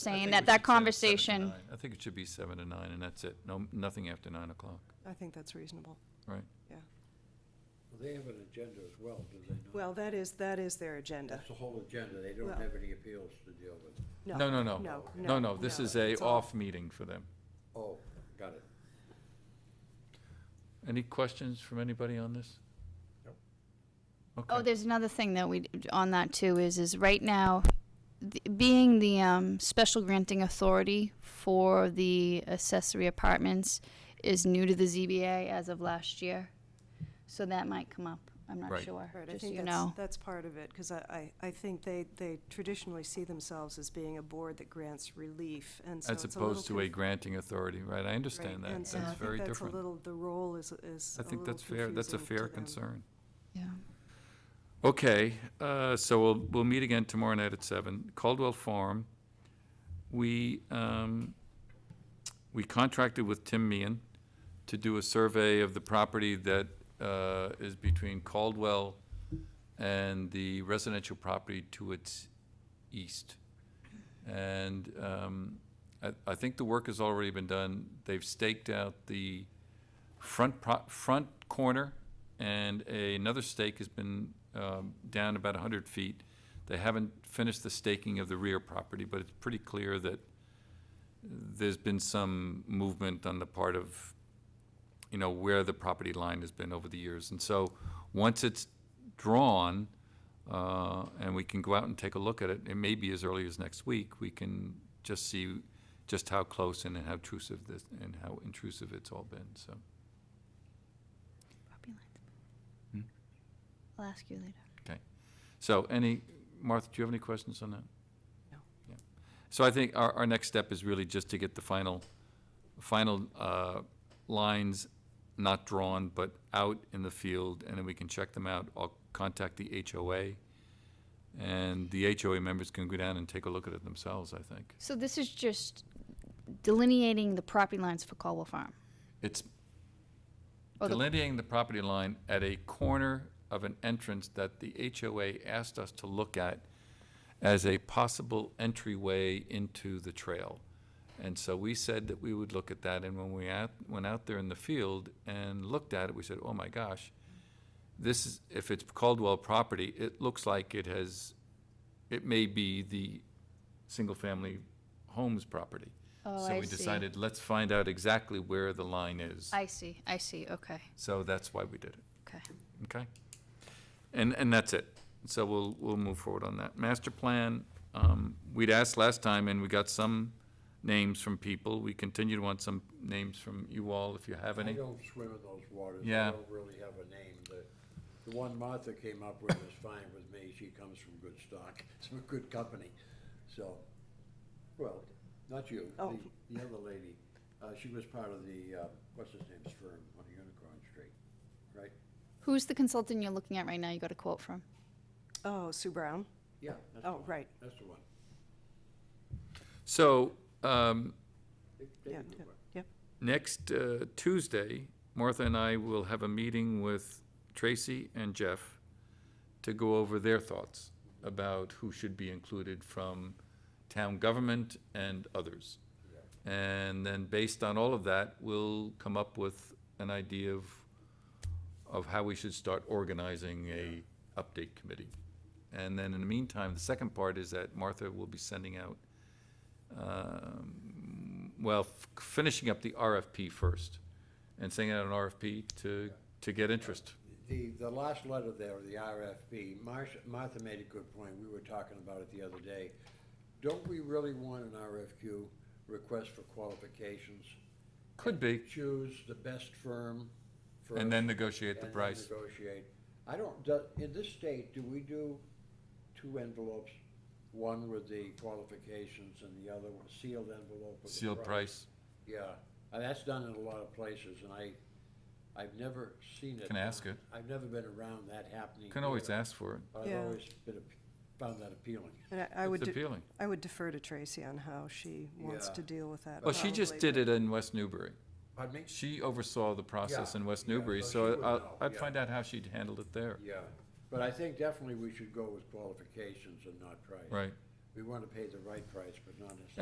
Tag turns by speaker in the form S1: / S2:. S1: saying
S2: think
S1: that
S2: we
S1: that
S2: should say seven to
S1: conversation,
S2: nine. I think it should be seven to nine, and that's it. No, nothing after nine o'clock,
S3: I think that's reasonable.
S2: right?
S4: Well, They have an agenda as well, do they not?
S3: Well, that is, that is their agenda.
S4: That's the whole agenda, they don't
S3: Well-
S4: have any appeals to deal with.
S3: No,
S2: No, no, no.
S3: No,
S2: No, no, this
S3: no,
S2: is a
S3: it's all-
S2: off meeting for them.
S4: Oh, got it.
S2: Any questions from anybody on this?
S1: oh,
S2: Okay,
S1: there's another thing that we, on that too, is, is right now, th- being the, um, special granting authority for the accessory apartments is new to the ZBA as of last year. So that might come up, I'm not
S2: Right.
S1: sure,
S3: Right, I
S1: just so
S3: think
S1: you
S3: that's,
S1: know.
S3: that's part of it, because I, I, I think they, they traditionally see themselves as being a board that grants relief, and so
S2: as
S3: it's a little.
S2: opposed to a
S3: conf-
S2: granting authority, right? I
S3: right,
S2: understand that.
S3: and so I
S2: That's
S3: think
S2: very
S3: that's a
S2: different.
S3: little- the role is, is
S2: I
S3: a
S2: think
S3: little
S2: that's fair, that's a
S3: confusing to
S2: fair
S3: them.
S2: concern.
S1: Yeah.
S2: Okay, uh, so we'll, we'll meet again tomorrow night at seven, Caldwell Farm. We, um, we contracted with Tim Meehan to do a survey of the property that, uh, is between Caldwell and the residential property to its east. And, um, I, I think the work has already been done. They've staked out the front pro, front corner and a- another stake has been, um, down about hundred feet. They haven't finished the staking of the rear property, but it's pretty clear that there's been some movement on the part of, you know, where the property line has been over the years. And so, once it's drawn, uh, and we can go out and take a look at it, it may be as early as next week, we can just see just how close and how intrusive this, and how intrusive it's all been, so.
S1: Property lines.
S2: Hmm?
S1: I'll ask you later.
S2: So any, Martha, do you have any questions on that?
S3: No.
S2: Yeah. So I think our, our next step is really just to get the final, final uh, lines not drawn, but out in the field, and then we can check them out. I'll contact the HOA, and the HOA members can go down and take a look at it themselves, I think.
S1: So this is just delineating the property lines for Caldwell Farm.
S2: It's
S1: Oh, the-
S2: delineating the property line at a corner of an entrance that the HOA asked us to look at as a possible entryway into the trail. And so we said that we would look at that, and when we out, went out there in the field and looked at it, we said, oh my gosh, this is, if it's Caldwell property, it looks like it has, it may be the single-family homes property.
S1: Oh,
S2: So
S1: I
S2: we
S1: see.
S2: decided, let's find out exactly where the line is.
S1: I see, I see, okay,
S2: So that's why we did it,
S1: okay.
S2: okay? And, and that's it. So we'll, we'll move forward on that. Master plan, um, we'd asked last time and we got some names from people. We continue to want some names from you all if you have
S4: I
S2: any.
S4: don't swim in those waters.
S2: Yeah.
S4: I don't really have a name. The, the one Martha came up with is fine with me. She comes from good stock, some good company. So, well, not you,
S3: Oh.
S4: the, the other lady. Uh, she was part of the, uh, what's his name's firm on Unicorn Street, right?
S1: Who's the consultant you're looking at right now you got a quote from?
S3: Oh, Sue Brown?
S4: Yeah, that's the
S3: Oh,
S4: one.
S3: right.
S4: That's the one.
S2: So, um,
S4: They- they
S3: Yeah,
S4: can do
S3: yeah,
S4: it.
S3: yeah.
S2: next uh, Tuesday, Martha and I will have a meeting with Tracy and Jeff to go over their thoughts about who should be included from town government and others. And then based on all of that, we'll come up with an idea of, of how we should start organizing a update committee. And then in the meantime, the second part is that Martha will be sending out um, well, f- finishing up the RFP first and sending out an RFP to, to get interest.
S4: The, the last letter there, the RFP, Marsh, Martha made a good point, we were talking about it the other day. Don't we really want an RFQ, request for qualifications?
S2: Could be,
S4: Choose the best firm first.
S2: and then negotiate
S4: and
S2: the
S4: then
S2: price.
S4: Negotiate. I don't, do- in this state, do we do two envelopes? One with the qualifications and the other one sealed envelope with the
S2: Sealed price.
S4: yeah, and that's done in a lot of places, and I, I've never seen it.
S2: Can ask it.
S4: I've never been around that happening.
S2: Can always
S4: here,
S2: ask for it.
S4: But I've
S3: Yeah.
S4: always been, ap- found that appealing.
S3: And I- I would,
S2: It's
S3: de-
S2: appealing.
S3: I would defer to Tracy on how she wants
S4: Yeah.
S3: to deal with that.
S2: Well, she just
S3: probably,
S2: did
S3: but-
S2: it in West Newbury.
S4: Pardon me?
S2: She oversaw the process
S4: Yeah,
S2: in West
S4: yeah,
S2: Newbury,
S4: so she
S2: so
S4: would know,
S2: I'll- I'd
S4: yeah.
S2: find out how she'd handled it there.
S4: Yeah, but I think definitely we should go with qualifications and not price.
S2: Right.
S4: We want to pay the right price, but not necessarily.